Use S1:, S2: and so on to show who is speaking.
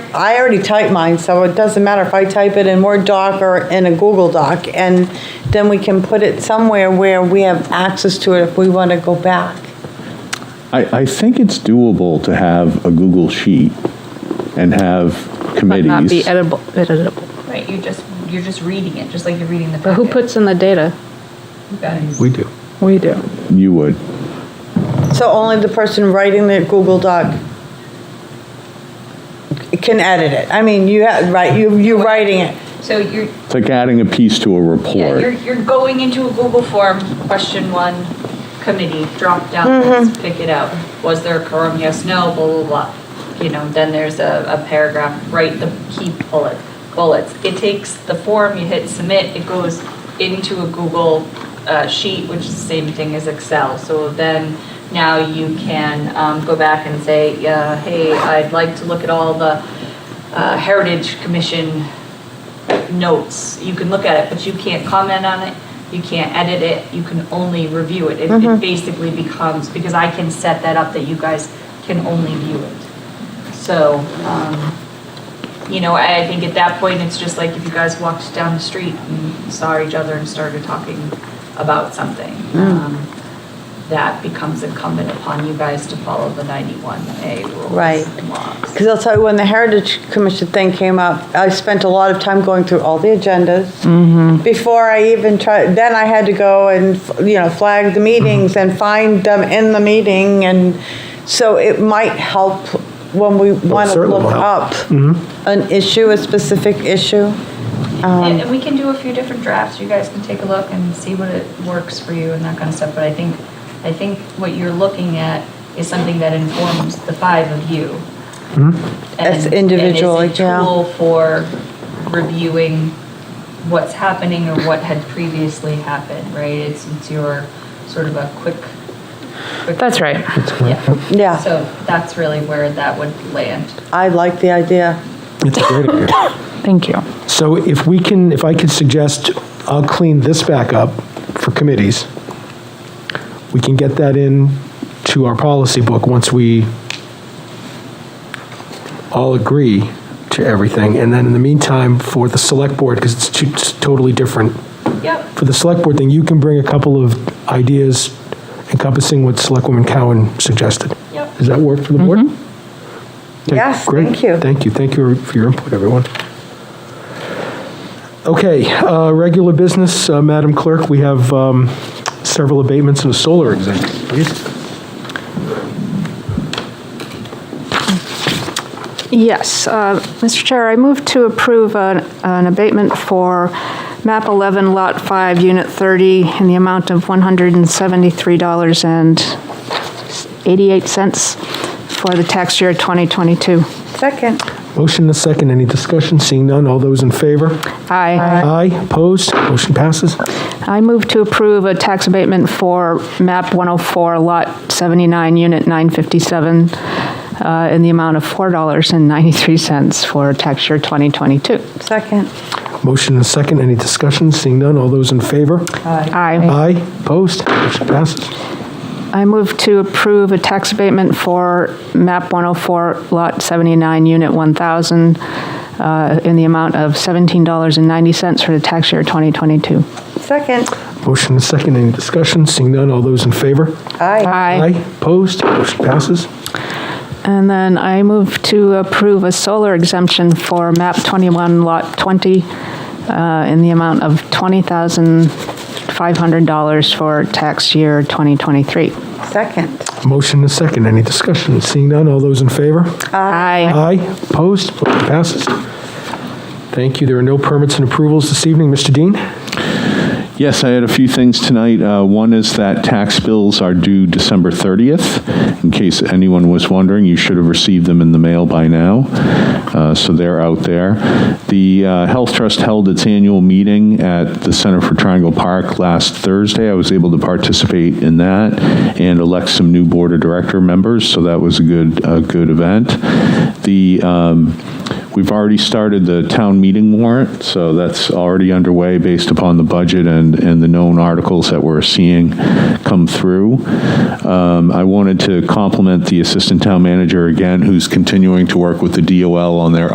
S1: I already typed mine, so it doesn't matter if I type it in Word doc or in a Google doc. And then we can put it somewhere where we have access to it if we want to go back.
S2: I, I think it's doable to have a Google sheet and have
S3: Might not be
S2: committees.
S3: editable, editable.
S4: Right, you're just, you're just reading it, just like you're reading the
S3: But who
S4: packet.
S3: puts in the data?
S4: You guys.
S5: We do.
S3: We do.
S2: You would.
S1: So only the person writing the Google doc can edit it. I mean, you, ha- right, you, you're writing it.
S4: So you're,
S2: It's like adding a piece to a
S4: yeah, you're,
S2: report.
S4: you're going into a Google form, question one, committee, drop down, let's pick it out. Was there a quorum? Yes, no, blah, blah, blah. You know, then there's a, a paragraph, write the key bullet, bullets. It takes the form, you hit submit, it goes into a Google uh, sheet, which is the same thing as Excel. So then now you can um, go back and say, yeah, hey, I'd like to look at all the uh, Heritage Commission notes. You can look at it, but you can't comment on it. You can't edit it. You can only review it. It, it basically becomes because I can set that up that you guys can only view it. So, um, you know, I, I think at that point it's just like if you guys walked down the street and saw each other and started talking about something. Um, that becomes incumbent upon you guys to follow the 91A rules
S1: Right.
S4: and laws.
S1: Because I'll tell you, when the Heritage Commission thing came up, I spent a lot of time going through all the agendas. Before I even tried, then I had to go and, you know, flag the meetings and find them in the meeting. And so it might help when we want to
S5: certainly will
S1: look up
S5: help.
S1: an issue, a specific issue.
S3: Um,
S4: And, and we can do a few different drafts, you guys can take a look and see what it works for you and that kind of stuff, but I think, I think what you're looking at is something that informs the five of you. And-
S3: Mm-hmm.
S1: As individual,
S4: And is a
S1: yeah.
S4: tool for reviewing what's happening or what had previously happened, right? It's, it's your sort of a quick. quick-
S3: That's right.
S4: Yeah.
S1: Yeah.
S4: So that's really where that would land.
S1: I like the idea.
S5: It's a great idea.
S3: Thank you.
S5: So if we can, if I could suggest, I'll clean this back up for committees. We can get that in to our policy book once we all agree to everything. And then in the meantime, for the select board, because it's two it's totally different,
S4: Yep.
S5: for the select board thing, you can bring a couple of ideas encompassing what Selectwoman Cowan suggested.
S4: Yep.
S5: Does that work for the board? Okay,
S1: Yes,
S5: great.
S1: thank you.
S5: Thank you, thank you for your input, everyone. Okay, uh, regular business, uh, Madam Clerk, we have um, several abatements and a solar exemption, please.
S3: Yes, uh, Mr. Chair, I move to approve an an abatement for MAP 11, Lot 5, Unit 30, in the amount of $173.88 for the tax year 2022.
S1: Second.
S5: Motion and a second, any discussion? Seeing none, all those in favor?
S3: Aye.
S5: Aye, opposed, motion passes.
S3: I move to approve a tax abatement for MAP 104, Lot 79, Unit 957, uh, in the amount of $4.93 for tax year 2022.
S1: Second.
S5: Motion and a second, any discussion? Seeing none, all those in favor?
S3: Aye.
S5: Aye, opposed, motion passes.
S3: I move to approve a tax abatement for MAP 104, Lot 79, Unit 1,000, uh, in the amount of $17.90 for the tax year 2022.
S1: Second.
S5: Motion and a second, any discussion? Seeing none, all those in favor?
S1: Aye.
S5: Opposed? Motion passes.
S3: And then I move to approve a solar exemption for MAP 21, Lot 20, uh, in the amount of $20,500 for tax year 2023.
S1: Second.
S5: Motion and second. Any discussion? Seeing none, all those in favor?
S3: Aye.
S5: Aye. Opposed? Motion passes. Thank you. There are no permits and approvals this evening. Mr. Dean?
S2: Yes, I had a few things tonight. Uh, One is that tax bills are due December 30th. In case anyone was wondering, you should have received them in the mail by now, Uh, so they're out there. The uh, Health Trust held its annual meeting at the Center for Triangle Park last Thursday. I was able to participate in that and elect some new Board of Director members, so that was a good, a good event. The um, We've already started the town meeting warrant, so that's already underway based upon the budget and, and the known articles that we're seeing come through. Um, I wanted to compliment the Assistant Town Manager again, who's continuing to work with the DOL on their